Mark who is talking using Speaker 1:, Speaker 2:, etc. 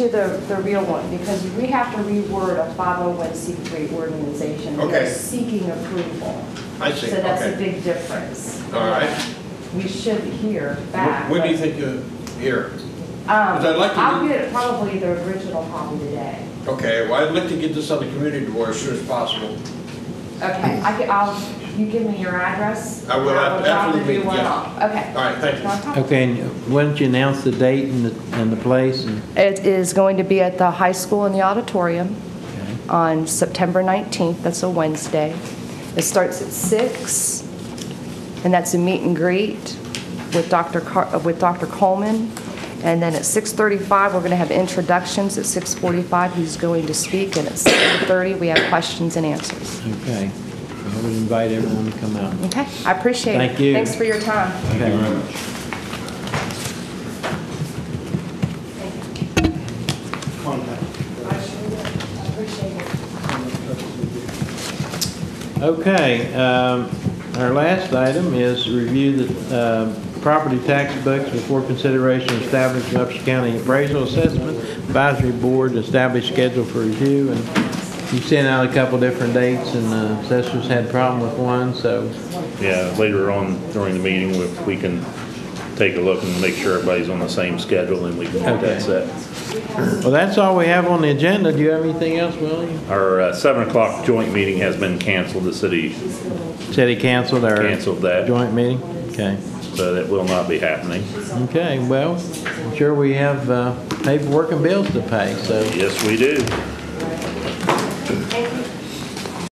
Speaker 1: to the, the real one, because we have to reword a 501c3 organization. We are
Speaker 2: Okay.
Speaker 1: Seeking approval.
Speaker 2: I see,
Speaker 1: So that's a
Speaker 2: okay.
Speaker 1: big difference.
Speaker 2: All right.
Speaker 1: We should hear back.
Speaker 2: When do you
Speaker 1: but-
Speaker 2: think you'll hear?
Speaker 1: Um,
Speaker 2: 'Cause I'd like to-
Speaker 1: I'll get probably the original copy today.
Speaker 2: Okay, well, I'd like to get this on the community board as soon as possible.
Speaker 1: Okay, I can, I'll, you give me your address?
Speaker 2: I will,
Speaker 1: and
Speaker 2: after- after
Speaker 1: drop
Speaker 2: the
Speaker 1: the
Speaker 2: meeting,
Speaker 1: new one
Speaker 2: yeah.
Speaker 1: off. Okay.
Speaker 2: All right, thank you.
Speaker 1: No problem.
Speaker 3: Okay, and why don't you announce the date and the, and the place and,
Speaker 1: It is going to be at the high school in the auditorium on September 19th. That's a Wednesday. It starts at six, and that's a meet and greet with Dr. Car- uh, with Dr. Coleman. And then at 6:35, we're going to have introductions. At 6:45, he's going to speak, and at 7:30, we have questions and answers.
Speaker 3: okay. I would invite everyone to come out.
Speaker 1: Okay? I appreciate it.
Speaker 3: Thank you.
Speaker 1: Thanks for your time.
Speaker 3: Thank you very much. Okay, um, our last item is review the uh, property tax books before consideration of establishing Upshur County Appraisal Assessment Advisory Board, establish schedule for review, and you sent out a couple different dates, and the assessors had problem with one, so
Speaker 4: Yeah, later on during the meeting, if we can take a look and make sure everybody's on the same schedule and we can get
Speaker 3: Okay.
Speaker 4: that set.
Speaker 3: Well, that's all we have on the agenda. Do you have anything else, Willie?
Speaker 4: Our uh, seven o'clock joint meeting has been canceled, the city,
Speaker 3: Said he canceled our.
Speaker 4: Canceled that.
Speaker 3: Joint meeting? Okay.
Speaker 4: so that will not be happening.
Speaker 3: Okay, well, I'm sure we have uh, paperwork and bills to pay, so
Speaker 4: Yes, we do.